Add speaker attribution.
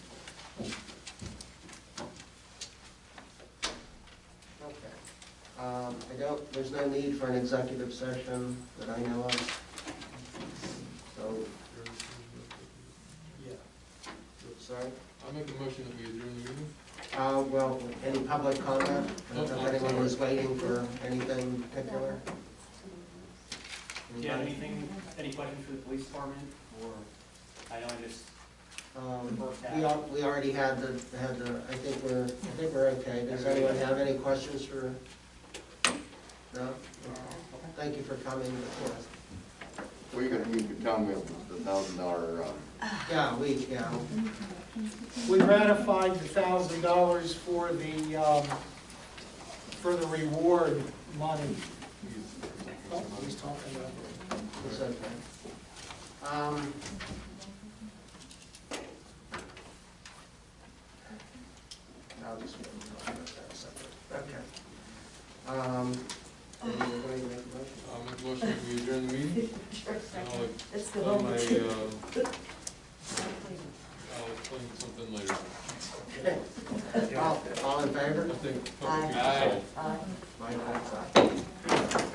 Speaker 1: Um, I don't, there's no need for an executive session that I know of. So,
Speaker 2: Yeah.
Speaker 1: sorry.
Speaker 3: I'll make a motion that we adjourn the meeting.
Speaker 1: Uh, well, any public comment? I don't know if anyone was waiting for anything in particular.
Speaker 4: Do you have
Speaker 1: Anybody?
Speaker 4: anything, any questions for the police department, or, I know I just,
Speaker 1: Um, we al- we already had the, had the, I think we're, I think we're okay. Does anyone have any questions for? No? Thank you for coming before us.
Speaker 5: Well, you can, you can tell me the thousand dollar, um,
Speaker 1: Yeah, we, yeah,
Speaker 2: We ratified the thousand dollars for the, um, for the reward money. Oh, he's talking about it.
Speaker 1: it's okay. Um. I'll just wait and talk about that separate. Okay. Um, anybody make a motion?
Speaker 3: I'll make a motion that we adjourn the meeting. And I'll
Speaker 6: It's the
Speaker 3: explain my,
Speaker 6: vote.
Speaker 3: uh, I'll explain something later.
Speaker 1: All, all in favor?
Speaker 3: I think.
Speaker 6: Aye.
Speaker 3: Aye.
Speaker 6: Aye.
Speaker 1: My vote's aye.